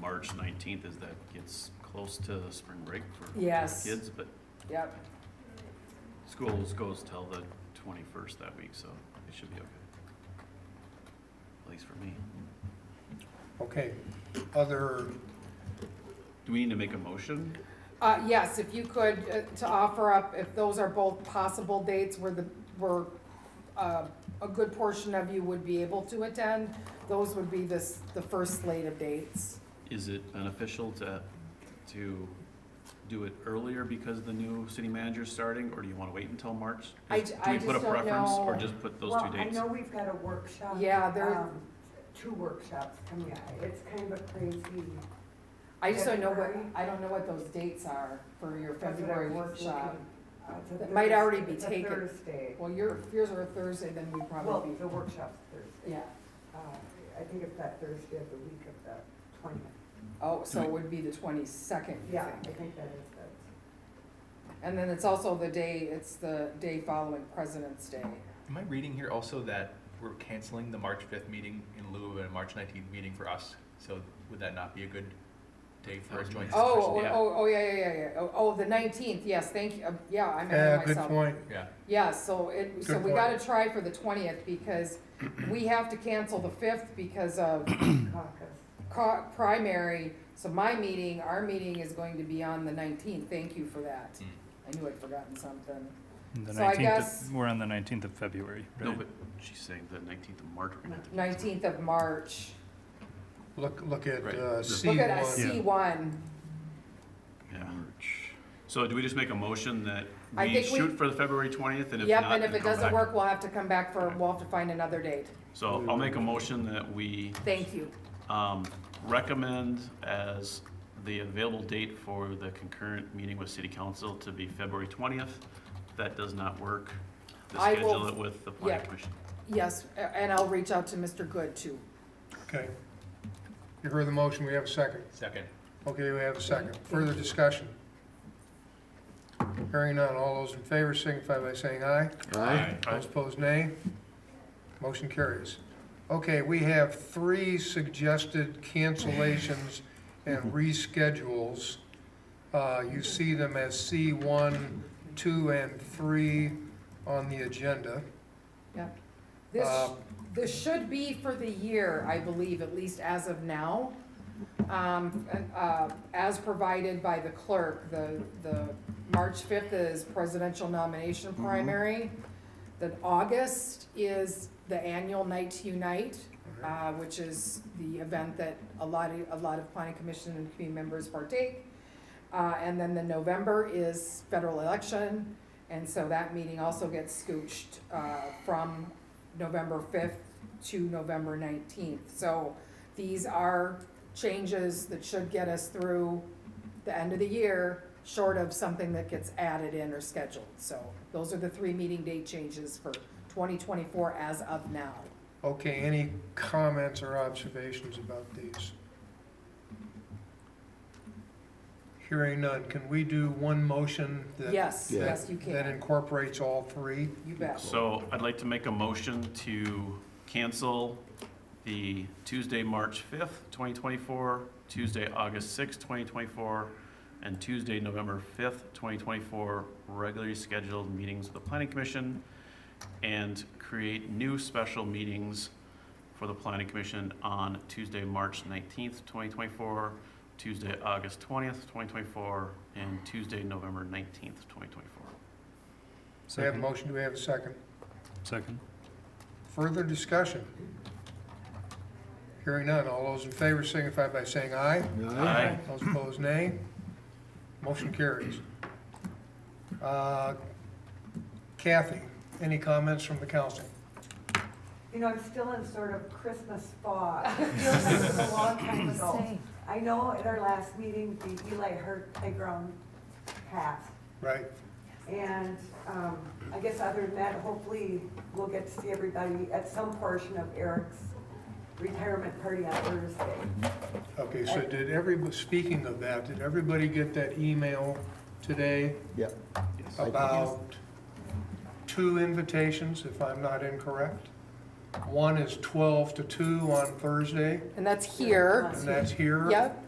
March nineteenth as that gets close to spring break for Yes. kids, but Yep, schools goes till the twenty-first that week, so it should be okay. At least for me. Okay, other, Do we need to make a motion? uh, yes, if you could, uh, to offer up, if those are both possible dates where the, where, uh, a good portion of you would be able to attend, those would be this, the first slate of dates. Is it beneficial to, to do it earlier because the new city manager's starting, or do you wanna wait until March? I Is- j- I Do we just put a don't preference, or know. just put those two dates? Well, I know we've got a workshop. Yeah, there- um, Two workshops coming up. It's kind of a crazy, I just don't know what, February. I don't know what those dates are for your February February workshop. uh, it's a That might already Thurs- be it's a taken. Thursday. Well, your, if yours are a Thursday, then we Well, probably the workshop's Thursday. be, yeah. Uh, I think it's that Thursday of the week of the twentieth. Oh, so it would be the twenty-second, you Yeah, I think? think that is it. And then it's also the day, it's the day following President's Day. Am I reading here also that we're canceling the March fifth meeting in lieu of a March nineteenth meeting for us? So would that not be a good day for a joint That's Oh, discussion? oh, yeah. oh, oh, yeah, yeah, yeah, yeah. Oh, oh, the nineteenth, yes, thank you, Uh, yeah, I'm ahead uh, of good myself. point. Yeah, Yeah, so it, so Good we point. gotta try for the twentieth because we have to cancel the fifth because of Caucus. co- primary. So my meeting, our meeting is going to be on the nineteenth, thank you for that. Mm. I knew I'd forgotten something. The So I guess- nineteenth, we're on the nineteenth of February, No, right? but she's saying the nineteenth of March, we're gonna have to. Nineteenth of March. Look, look at Right. uh, C Look at I one. Yeah. see one. Yeah. So do we just make a motion that I we think we- shoot for the February twentieth, and if Yep, not, and if then it come doesn't back? work, we'll have to come back for, we'll have to find another date. So I'll make a motion that we, Thank you. um, recommend as the available date for the concurrent meeting with city council to be February twentieth. If That does not work, to I schedule will- it with the planning yeah. commission. Yes, a- and I'll reach out to Mr. Good too. Okay. You heard the motion, we have a second. second. Okay, we have a second. Further discussion? Hearing none, all those in favor signify by saying aye. Those opposed, nay. Motion carries. Okay, we have three suggested cancellations and reschedules. Uh, You see them as C1, 2, and 3 on the agenda. This, Um, this should be for the year, I believe, at least as of now. Um, and, uh, as provided by the clerk, the, the March fifth is presidential nomination primary. Then August is the annual Night to Unite, uh, which is the event that a lot of, a lot of planning commission and community members partake. Uh, and then the November is federal election, and so that meeting also gets scooched, uh, from November fifth to November nineteenth. So these are changes that should get us through the end of the year, short of something that gets added in or scheduled. So those are the three meeting date changes for twenty twenty-four as of now. Okay, any comments or observations about these? Hearing none, can we do one motion that? Yes, that- yes, you That can, incorporates all three? you bet. So I'd like to make a motion to cancel the Tuesday, March fifth, twenty twenty-four, Tuesday, August sixth, twenty twenty-four, and Tuesday, November fifth, twenty twenty-four, regularly scheduled meetings of the planning commission, and create new special meetings for the planning commission on Tuesday, March nineteenth, twenty twenty-four, Tuesday, August twentieth, twenty twenty-four, and Tuesday, November nineteenth, twenty twenty-four. We have a Second, motion, do we have a second? second. Further discussion? Hearing none, all those in favor signify by saying aye. Aye. Those opposed, nay. Motion carries. Uh, Kathy, any comments from the council? You know, I'm still in sort of Christmas fog. It feels like it's a long time ago. I know at our last meeting, the Eli Hurt playground passed. Right, And um, I guess other than that, hopefully we'll get to see everybody at some portion of Eric's retirement party on Thursday. okay, so did everybody, speaking of that, did everybody get that email today Yep. about two invitations, if I'm not incorrect? One is 12 to 2 on Thursday, And that's here, and that's here. yep.